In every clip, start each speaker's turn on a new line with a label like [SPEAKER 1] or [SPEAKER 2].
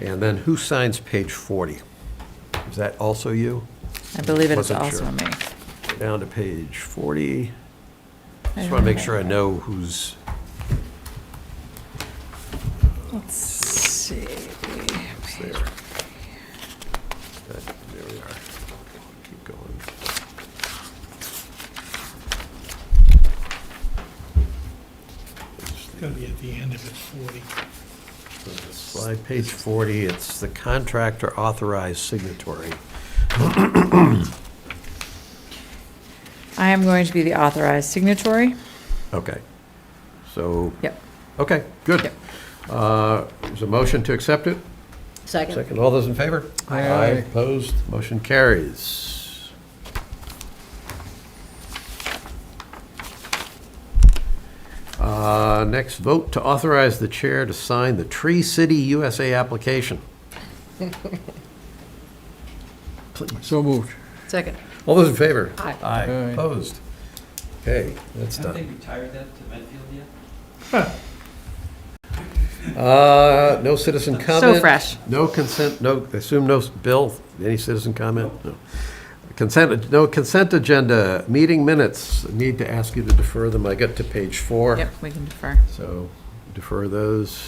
[SPEAKER 1] And then who signs page 40? Is that also you?
[SPEAKER 2] I believe it is
[SPEAKER 1] Wasn't sure.
[SPEAKER 2] also me.
[SPEAKER 1] Down to page 40. Just
[SPEAKER 2] don't
[SPEAKER 1] want to make
[SPEAKER 2] know.
[SPEAKER 1] sure I know who's,
[SPEAKER 2] Let's see.
[SPEAKER 1] who's there. That- There we are. Keep going.
[SPEAKER 3] It's gonna be at the end of it, forty.
[SPEAKER 1] Slide page 40, it's the contractor authorized signatory.
[SPEAKER 2] I am going to be the authorized signatory.
[SPEAKER 1] Okay. So,
[SPEAKER 2] Yep.
[SPEAKER 1] okay, good.
[SPEAKER 2] Yep.
[SPEAKER 1] Uh, Is a motion to accept it?
[SPEAKER 4] Second.
[SPEAKER 1] Second, all those in favor?
[SPEAKER 3] Aye.
[SPEAKER 1] Opposed, motion carries. Uh, Next, vote to authorize the chair to sign the Tree City USA application.
[SPEAKER 5] So moved.
[SPEAKER 4] Second.
[SPEAKER 1] All those in favor?
[SPEAKER 4] Aye.
[SPEAKER 1] Aye,
[SPEAKER 5] Aye.
[SPEAKER 1] opposed. Okay, that's
[SPEAKER 6] Have they
[SPEAKER 1] done.
[SPEAKER 6] retired that to Medfield yet?
[SPEAKER 1] Uh, No citizen comment?
[SPEAKER 2] So fresh.
[SPEAKER 1] No consent, no, I assume no, Bill, any citizen comment? No. Consent, no consent agenda, meeting minutes, need to ask you to defer them, I get to page four.
[SPEAKER 2] Yep, we can defer.
[SPEAKER 1] So defer those.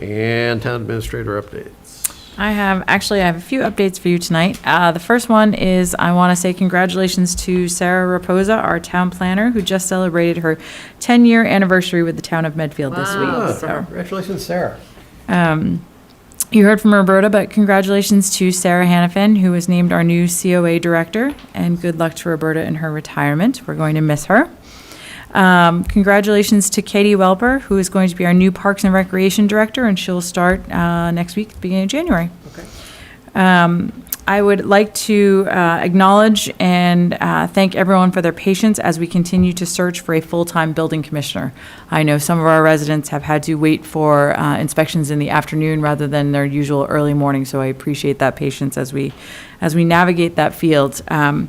[SPEAKER 1] And town administrator updates.
[SPEAKER 2] I have, actually, I have a few updates for you tonight. Uh, The first one is, I want to say congratulations to Sarah Raposa, our town planner, who just celebrated her 10-year anniversary with the town of Medfield this
[SPEAKER 1] Ah,
[SPEAKER 2] week, so.
[SPEAKER 1] Congratulations, Sarah.
[SPEAKER 2] Um, You heard from Roberta, but congratulations to Sarah Hannafin, who was named our new COA director, and good luck to Roberta in her retirement. We're going to miss her. Um, Congratulations to Katie Welper, who is going to be our new Parks and Recreation Director, and she'll start uh, next week, beginning of January.
[SPEAKER 4] Okay.
[SPEAKER 2] Um, I would like to uh, acknowledge and uh, thank everyone for their patience as we continue to search for a full-time building commissioner. I know some of our residents have had to wait for uh, inspections in the afternoon rather than their usual early morning, so I appreciate that patience as we, as we navigate that field. Um,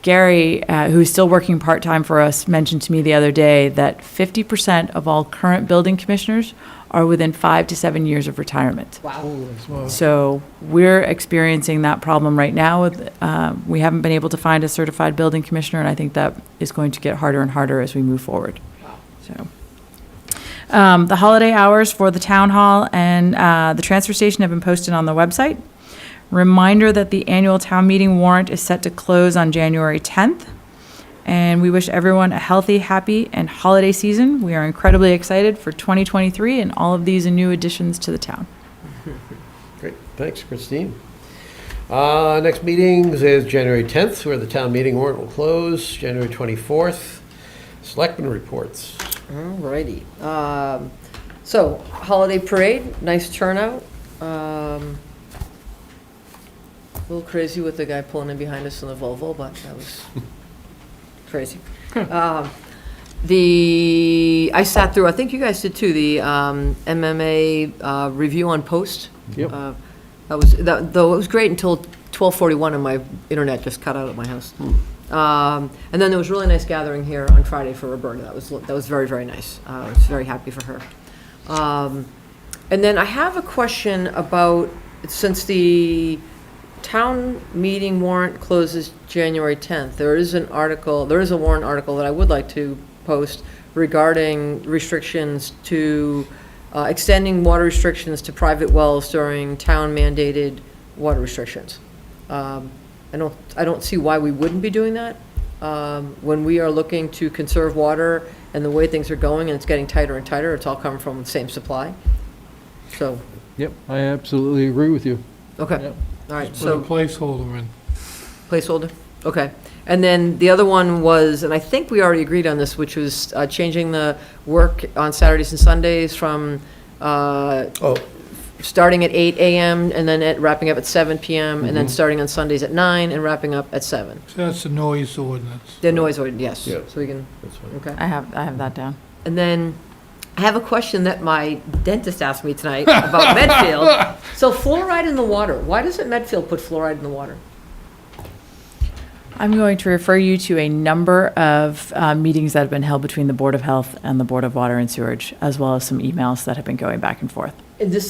[SPEAKER 2] Gary, uh, who's still working part-time for us, mentioned to me the other day that 50% of all current building commissioners are within five to seven years of retirement.
[SPEAKER 4] Wow.
[SPEAKER 2] So we're experiencing that problem right now. with, uh, We haven't been able to find a certified building commissioner, and I think that is going to get harder and harder as we move forward. So, um, The holiday hours for the town hall and uh, the transfer station have been posted on the website. Reminder that the annual town meeting warrant is set to close on January 10th. And we wish everyone a healthy, happy, and holiday season. We are incredibly excited for 2023 and all of these new additions to the town.
[SPEAKER 1] Great, thanks, Christine. Uh, Next meeting is January 10th, where the town meeting warrant will close, January 24th. Selectmen reports.
[SPEAKER 4] Alrighty. Um, So, holiday parade, nice turnout. Um, A little crazy with the guy pulling in behind us in the Volvo, but that was crazy. Um, The, I sat through, I think you guys did too, the um, MMA uh, review on post.
[SPEAKER 1] Yep.
[SPEAKER 4] Uh, That was, that- though it was great until 12:41 and my internet just cut out at my house. Um, And then there was a really nice gathering here on Friday for Roberta. That was, that was very, very nice. Uh, I was very happy for her. Um, And then I have a question about, since the town meeting warrant closes January 10th, there is an article, there is a warrant article that I would like to post regarding restrictions to, uh, extending water restrictions to private wells during town mandated water restrictions. Um, I don't, I don't see why we wouldn't be doing that. Um, When we are looking to conserve water and the way things are going and it's getting tighter and tighter, it's all coming from the same supply. So,
[SPEAKER 5] Yep, I absolutely agree with you.
[SPEAKER 4] okay,
[SPEAKER 5] Yep.
[SPEAKER 4] all right,
[SPEAKER 3] Put a
[SPEAKER 4] so
[SPEAKER 3] placeholder in.
[SPEAKER 4] placeholder, okay. And then the other one was, and I think we already agreed on this, which was uh, changing the work on Saturdays and Sundays from uh,
[SPEAKER 1] Oh,
[SPEAKER 4] starting at 8 AM and then at- wrapping up at 7 PM and then starting on Sundays at 9 and wrapping up at 7.
[SPEAKER 3] So that's the noise ordinance.
[SPEAKER 4] The noise, ordinance, yes,
[SPEAKER 1] Yeah.
[SPEAKER 4] so we can,
[SPEAKER 1] that's fine.
[SPEAKER 4] okay.
[SPEAKER 2] I have, I have that down.
[SPEAKER 4] And then I have a question that my dentist asked me tonight about Medfield. So fluoride in the water, why doesn't Medfield put fluoride in the water?
[SPEAKER 2] I'm going to refer you to a number of uh, meetings that have been held between the Board of Health and the Board of Water and Sewerage, as well as some emails that have been going back and forth.
[SPEAKER 4] Is this